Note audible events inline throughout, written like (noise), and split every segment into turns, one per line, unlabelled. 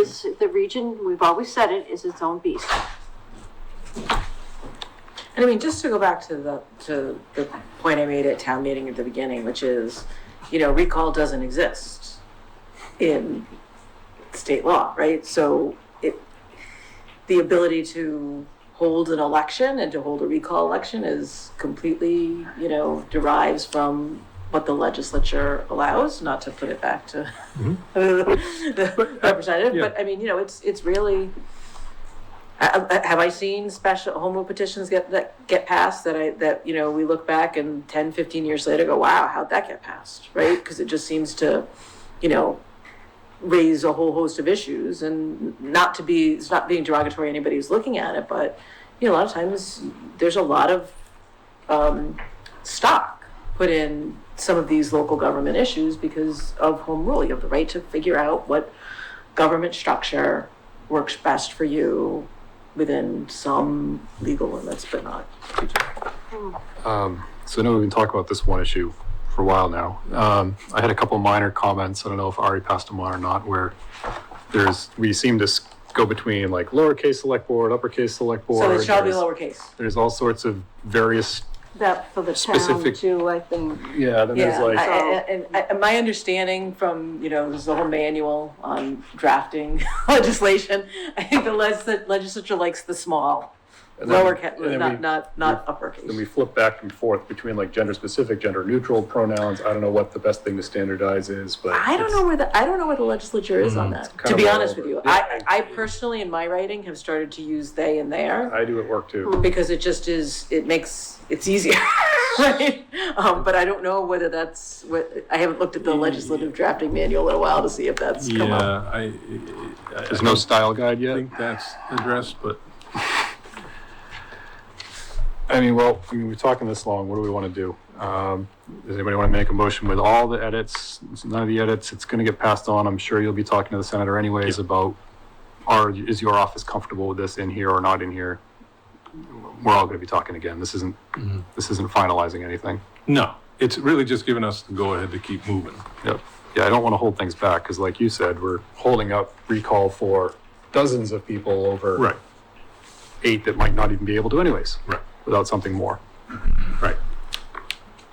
the region, we've always said it, is its own beast.
And I mean, just to go back to the, to the point I made at town meeting at the beginning, which is, you know, recall doesn't exist in state law, right? So it, the ability to hold an election and to hold a recall election is completely, you know, derives from what the legislature allows, not to put it back to (laughs) the representative, but I mean, you know, it's, it's really, I- I- Have I seen special home rule petitions get, that get passed that I, that, you know, we look back and 10, 15 years later go, wow, how'd that get passed, right? Because it just seems to, you know, raise a whole host of issues and not to be, it's not being derogatory, to anybody who's looking at it, but, you know, a lot of times there's a lot of um, stock put in some of these local government issues because of home rule. You have the right to figure out what government structure works best for you within some legal limits, but not.
So I know we've been talking about this one issue for a while now. Um, I had a couple minor comments. I don't know if Ari passed them on or not, where there's, we seem to s- go between like lowercase select board, uppercase select board.
So it shall be
There's-
lowercase.
There's all sorts of various,
That for the town
Specific-
too, I think.
yeah, then there's
Yeah, I-
like,
I- and I- and my understanding from, you know, there's a whole manual on drafting (laughs) legislation. I think the les- the legislature likes the small,
And then-
lower,
and then
not,
we-
not, not uppercase.
then we flip back and forth between like gender specific, gender neutral pronouns. I don't know what the best thing to standardize is, but.
I don't
it's-
know where the I don't know where the legislature is on that.
kind
To
of
be
all
honest with
over.
you,
Yeah.
I I personally in my writing have started to use they and their
I do at work too.
because it just is it makes it's easier. (laughs) right? Um, but I don't know whether that's what I haven't looked at the legislative drafting manual in a while to see if that's come
Yeah,
up.
I, I- I
There's no
don't
style guide yet.
think that's addressed, but
I mean, well, I mean, we're talking this long, what do we want to do? Um, does anybody want to make a motion with all the edits? It's None of the edits, it's going to get passed on, I'm sure you'll be talking to the senator anyways about, are, is your office comfortable with this in here or not in here? We're all going to be talking again, this isn't, this isn't finalizing anything.
no, it's really just giving us the go-ahead to keep moving.
Yep. Yeah, I don't want to hold things back, because like you said, we're holding up recall for dozens of people over eight that might not even be able to anyways,
right,
without something more.
right.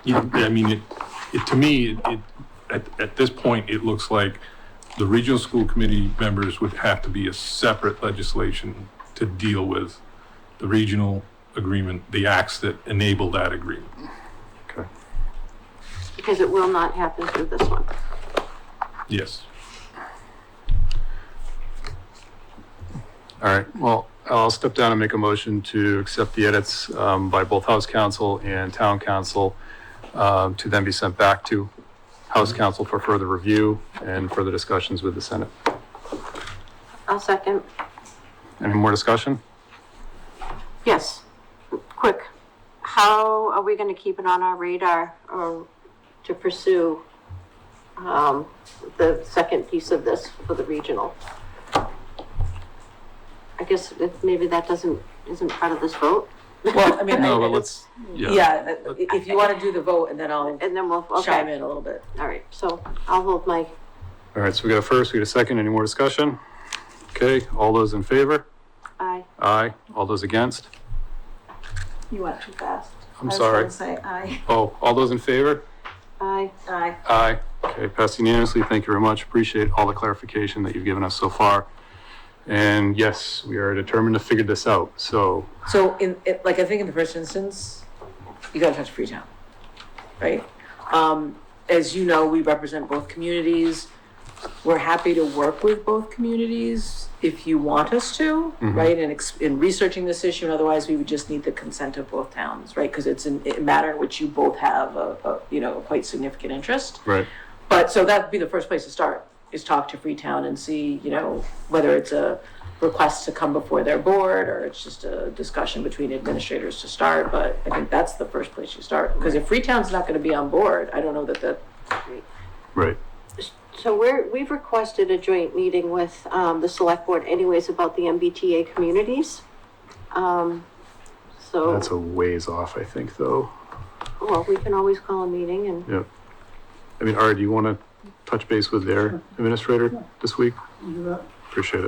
You- I mean, it, it, to me, it- it, at, at this point, it looks like the regional school committee members would have to be a separate legislation to deal with the regional agreement, the acts that enable that agreement.
Okay.
because it will not happen through this one.
Yes.
All right, well, I'll step down and make a motion to accept the edits um, by both House Counsel and Town Council um, to then be sent back to House Counsel for further review and further discussions with the Senate.
I'll second.
Any more discussion?
Yes, quick. How are we gonna keep it on our radar or to pursue um, the second piece of this for the regional? I guess if maybe that doesn't, isn't part of this vote,
Well, I mean,
No,
I,
but let's, yeah,
yeah, if you want to do the vote and then I'll
and then we'll,
chime
okay,
in a little bit.
all right, so I'll hold my,
all right, so we got a first, we got a second, any more discussion? Okay, all those in favor?
aye.
Aye, all those against?
You went too fast.
I'm sorry.
Say aye.
Oh, all those in favor?
Aye.
Aye.
Aye. Okay, passed unanimously. Thank you very much. Appreciate all the clarification that you've given us so far. And yes, we are determined to figure this out. So,
So in, it, like, I think in the first instance, you gotta touch Freetown, right? Um, as you know, we represent both communities. We're happy to work with both communities if you want us to, right? And ex- in researching this issue, and otherwise we would just need the consent of both towns, right? Because it's an- a matter in which you both have a, a, you know, a quite significant interest.
right.
But, so that'd be the first place to start, is talk to Freetown and see, you know, whether it's a request to come before their board, or it's just a discussion between administrators to start, but I think that's the first place you start, because if Freetown's not gonna be on board, I don't know that that,
Right.
So we're, we've requested a joint meeting with um, the select board anyways about the MBTA communities. Um, So,
Oh. That's a ways off, I think, though.
well, we can always call a meeting and
Yeah. I mean, Ari, do you want to touch base with their administrator this week? Appreciate it.